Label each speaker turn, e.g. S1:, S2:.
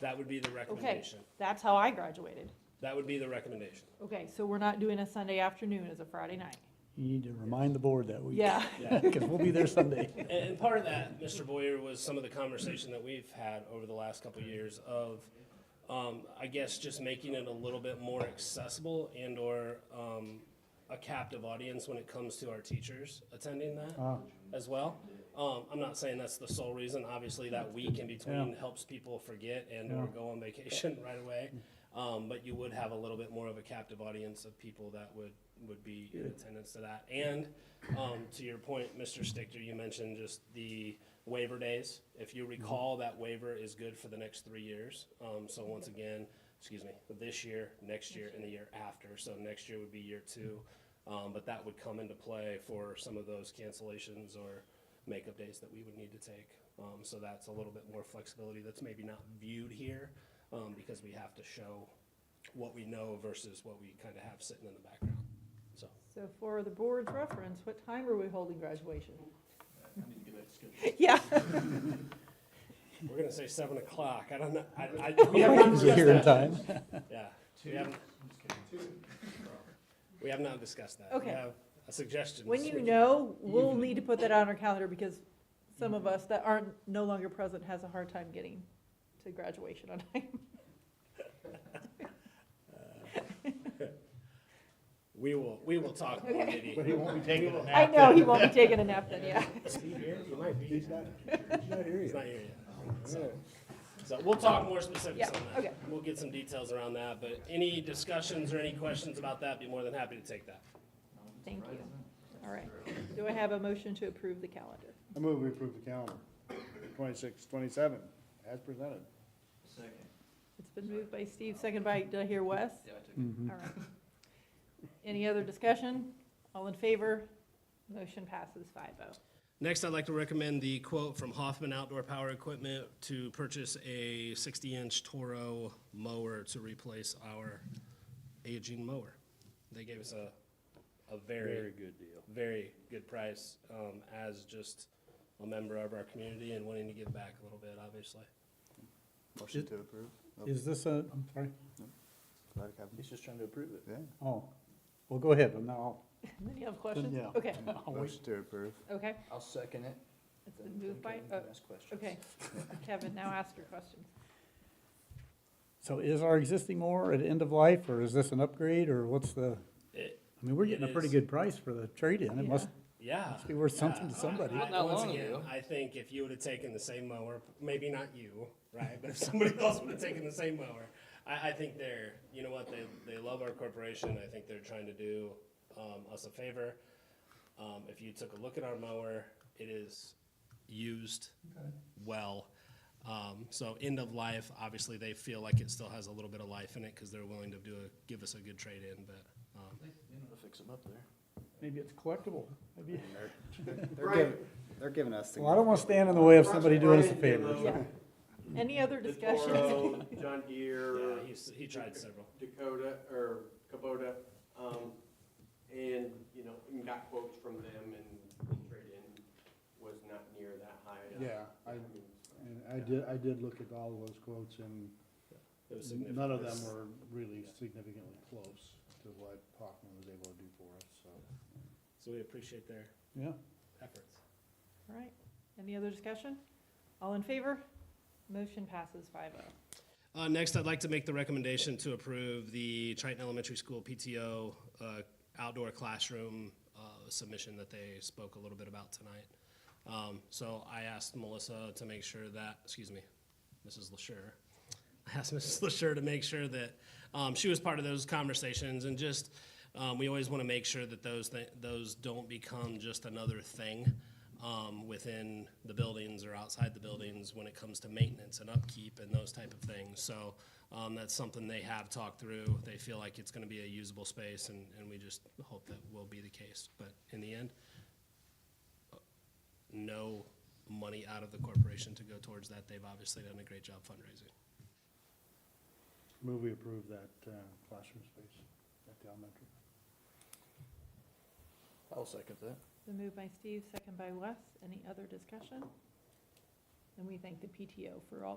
S1: That would be the
S2: Okay,
S1: recommendation.
S2: that's how I graduated.
S1: That would be the recommendation.
S2: Okay, so we're not doing a Sunday afternoon as a Friday night.
S3: You need to remind the board that week.
S2: Yeah,
S1: Yeah.
S3: Because we'll be there Sunday.
S1: And, and part of that, Mr. Boyer, was some of the conversation that we've had over the last couple of years of, um, I guess, just making it a little bit more accessible and/or, um, a captive audience when it comes to our teachers attending that
S3: Ah.
S1: as well. Um, I'm not saying that's the sole reason, obviously that week in between
S3: Yeah.
S1: helps people forget and/or go on vacation right away.
S3: Mm-hmm.
S1: Um, but you would have a little bit more of a captive audience of people that would, would be in attendance to that. And, um, to your point, Mr. Stickter, you mentioned just the waiver days. If you recall, that waiver is good for the next three years. Um, so once again, excuse me, this year, next year, and the year after. So next year would be year two. Um, but that would come into play for some of those cancellations or makeup days that we would need to take. Um, so that's a little bit more flexibility that's maybe not viewed here, um, because we have to show what we know versus what we kind of have sitting in the background, so.
S2: so for the board's reference, what time are we holding graduation? Yeah,
S1: We're gonna say seven o'clock, I don't know, I, I, we have not
S3: Is it here in
S1: discussed that.
S3: time?
S1: Yeah, we haven't, we have not discussed that.
S2: Okay.
S1: We have a suggestion.
S2: when you know, we'll need to put that on our calendar because some of us that aren't, no longer present has a hard time getting to graduation on time.
S1: We will, we will talk more, Diddy.
S4: But he won't be taking a nap.
S2: I know he won't be taking a nap then, yeah.
S1: Is he here? He might be. He's not
S4: hear you.
S1: here yet. So- So we'll talk more specifics
S2: Yeah,
S1: on that.
S2: okay.
S1: We'll get some details around that, but any discussions or any questions about that, be more than happy to take that.
S2: Thank you. All right. Do I have a motion to approve the calendar?
S4: I move we approve the calendar, twenty-six, twenty-seven, as presented.
S2: It's been moved by Steve, second by, did I hear Wes? All right. Any other discussion? All in favor? Motion passes five oh.
S1: Next, I'd like to recommend the quote from Hoffman Outdoor Power Equipment to purchase a 60-inch Toro mower to replace our aging mower. They gave us a, a very,
S4: good deal.
S1: very good price um, as just a member of our community and wanting to give back a little bit, obviously.
S5: Motion to approve.
S3: Is this a, I'm sorry,
S5: Let it happen.
S4: He's just trying to approve it.
S5: Yeah.
S3: oh, well, go ahead, I'm now,
S2: Then you have questions?
S3: yeah.
S2: Okay,
S3: I'll wait.
S5: Motion to approve.
S2: okay.
S6: I'll second it.
S2: It's
S6: Then
S2: been moved by,
S6: Kevin
S2: oh,
S6: can ask questions.
S2: okay. Kevin, now ask your questions.
S3: So is our existing mower at end of life, or is this an upgrade, or what's the,
S1: It-
S3: I mean, we're getting a
S1: It
S3: pretty
S1: is.
S3: good price for the trade-in, it must
S1: Yeah.
S3: be worth something to
S1: Yeah.
S3: somebody.
S1: I-
S6: Not that
S1: once
S6: long
S1: again,
S6: ago.
S1: I think if you would have taken the same mower, maybe not you, right? But if somebody else would have taken the same mower, I, I think they're, you know what, they, they love our corporation. I think they're trying to do um, us a favor. Um, if you took a look at our mower, it is used well. Um, so end of life, obviously they feel like it still has a little bit of life in it because they're willing to do a, give us a good trade in, but um,
S6: You know how to fix them up there.
S3: Maybe it's collectible, maybe,
S5: They're giving, they're giving us the.
S3: well, I don't wanna stand in the way of somebody doing us a favor.
S2: Yeah. Any other
S7: The
S2: discussions?
S7: Toro, um, John Deere,
S1: yeah, he's, he tried several.
S7: Dakota, or Kubota, um, and, you know, and got quotes from them and the trade-in was not near that high.
S4: Yeah, I,
S7: mean,
S4: and I did, I did look at all those quotes and
S1: It was
S4: none of them
S1: significant.
S4: were really significantly close to what Hoffman was able to do for us, so.
S1: So we appreciate their
S4: Yeah.
S1: efforts.
S2: All right. Any other discussion? All in favor? Motion passes five oh.
S1: Uh, next, I'd like to make the recommendation to approve the Triton Elementary School PTO uh, outdoor classroom uh, submission that they spoke a little bit about tonight. Um, so I asked Melissa to make sure that, excuse me, Mrs. LaSure, I asked Mrs. LaSure to make sure that um, she was part of those conversations and just, um, we always want to make sure that those, th- those don't become just another thing um, within the buildings or outside the buildings when it comes to maintenance and upkeep and those type of things. So um, that's something they have talked through. They feel like it's going to be a usable space and, and we just hope that will be the case. But in the end, uh, no money out of the corporation to go towards that. They've obviously done a great job fundraising.
S4: Move we approve that, uh, classroom space at the elementary.
S6: I'll second that.
S2: The move by Steve, second by Wes. Any other discussion? And we thank the PTO for all the